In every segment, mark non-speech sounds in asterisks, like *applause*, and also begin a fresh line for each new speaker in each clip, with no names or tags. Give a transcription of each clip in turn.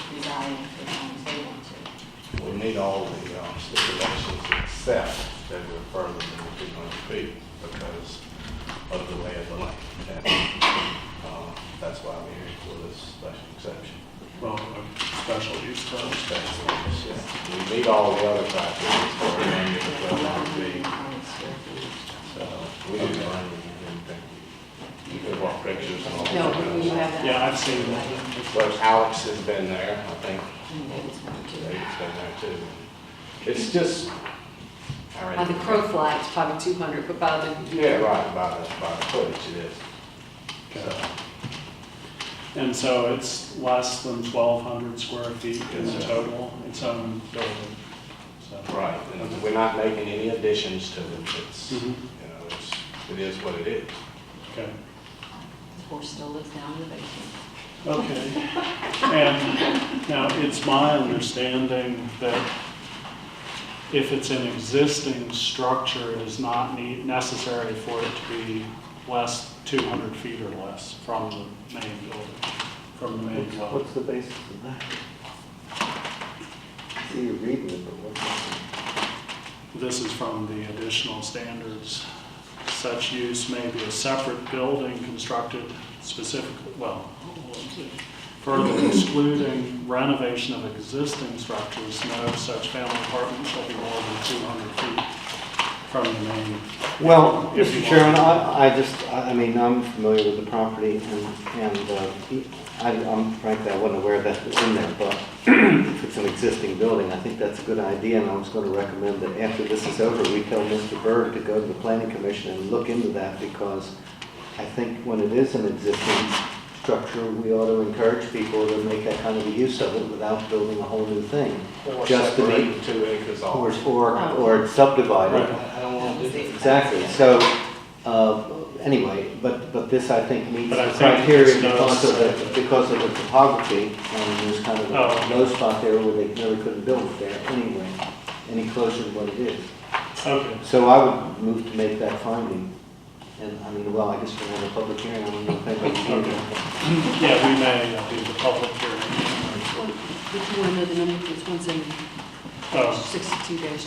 things as long as they want to.
We need all the um, stipulations except that we're further than the two hundred feet because of the way of the land. And, uh, That's why we're here for this special exception.
Well, a special use permit.
Special use, yeah. We meet all the other criteria for a land use of twelve hundred feet. So we didn't run anything. You could walk pictures and all that.
No, we have that.
Yeah, I've seen that.
But Alex has been there, I think
And David's one too.
David's been there too. It's just. I
By the
already-
crow fly, it's probably 200, but by the,
Yeah, right, by the, by the footage it is. So,
And so it's less than twelve hundred square feet in
Yes, sir.
total, its own building. So,
Right, and we're not making any additions to it, it's, you
Mhm.
know, it's, it is what it is.
okay,
The horse still lives down in the basement.
okay. And now, it's my understanding that if it's an existing structure, it is not need, necessary for it to be less, two hundred feet or less from the main building, from the main dwelling.
What's the basis of that? I See, you're reading it, but what's?
This is from the additional standards. Such use may be a separate building constructed specifically, well, further excluding renovation of existing structures, no such family apartment shall be more than 200 feet from the main.
Well,
If you
Mr.
want.
Chairman, I, I just, I I mean, I'm familiar with the property and, and uh, I, I'm frankly, I wasn't aware that was in there, but *clears throat* if it's an existing building, I think that's a good idea, and I was gonna recommend that after this is over, we tell Mr. Byrd to go to the planning commission and look into that, because I think when it is an existing structure, we ought to encourage people to make that kind of a use of it without building a whole new thing.
Or
Just to
separating
meet,
Two acres off.
or, or- or subdivide it.
I don't want to do that.
Exactly, so, uh, anyway, but, but this, I think, meets
But I
the
think
criteria
it's not
because of
said.
the, because of the topography, and there's kind of
Oh.
a low spot there where they really couldn't build it there anyway, any closer to what it is.
Okay.
So I would move to make that finding, and, I mean, well, I guess we're having a public hearing, I don't know if anybody can hear
Okay. Yeah, we may uh, do the public hearing.
which one, if you want to know the number, it's 172
Oh,
dash G.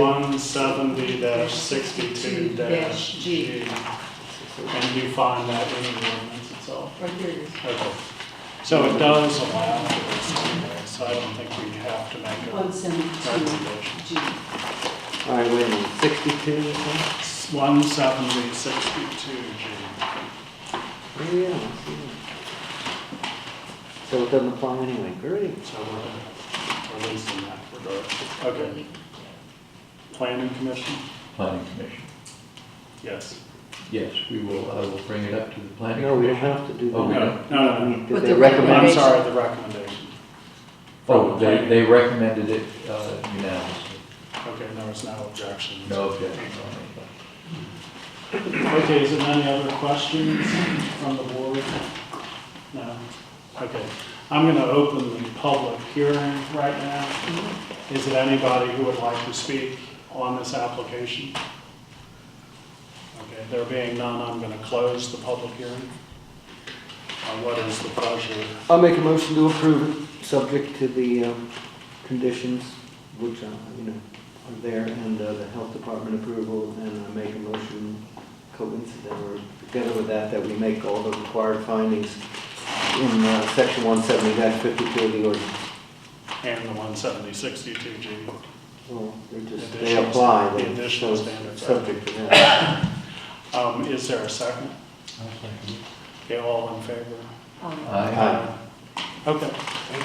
Um,
Sixty-two,
170-62-G. And you find that in the ordinance itself.
Right here it is.
Okay. So it does allow for this anyway, so I don't think we have to make a
172
recommendation.
G.
all right, wait a minute, sixty-two, is that?
One seventy sixty-two G.
Oh, yeah, I see that. So it doesn't apply anyway, great.
So we're releasing that regard. Okay. Planning Commission?
planning commission.
Yes.
Yes, we will, I will bring it up to the planning.
No, we don't have to do
Oh, we
that.
No, no, no.
Did
But
they
the
recommend?
I'm
Recommendation.
sorry, the recommendation.
Oh, they, they recommended it uh, unanimously.
Okay, there was no objection.
No objection on it.
Okay, is there any other questions from the board? No? Okay. I'm going to open the public hearing right now. Is it anybody who would like to speak on this application? Okay, there being none, I'm going to close the public hearing. Uh, What is the pleasure?
I'll make a motion to approve it, subject to the um, conditions which, uh, you know, are there, and uh, the health department approval, and I make a motion coincident, or together with that, that we make all the required findings in uh, section 170-52 of the ordinance.
And the 17062G.
Well, they just, they
Additional-
apply,
the
they're
additional standards, right.
subject to that.
Um, Is there a second? Okay, all in favor?
Um,
Aye.
Aye.
Okay,
Thank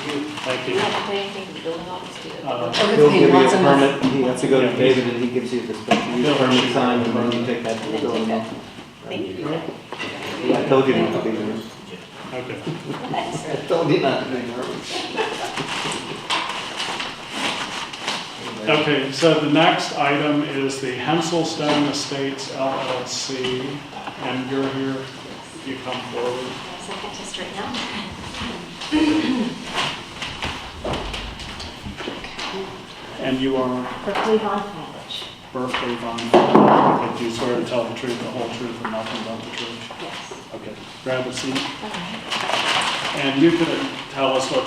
you.
thank
You
you.
have to pay anything to the building office to do
Uh,
it.
He'll give you a permit, he has
Once
to
a
go to
Yeah.
David, and he gives you the special use
Bill,
permit
she-
signed, and then you take that to the
And then take
building.
that. Thank you.
Yeah, I told you not to be nervous.
Okay.
I told you not to be nervous.
Okay, so the next item is the Henselstone Estates LLC, and you're here, if you come forward.
Second just right now.
And you are
Berkeley Von Fabich.
Berkeley Von Fowler, but you swear to tell the truth, the whole truth, and nothing but the truth.
Yes.
Okay, grab a seat,
Okay.
and you could tell us what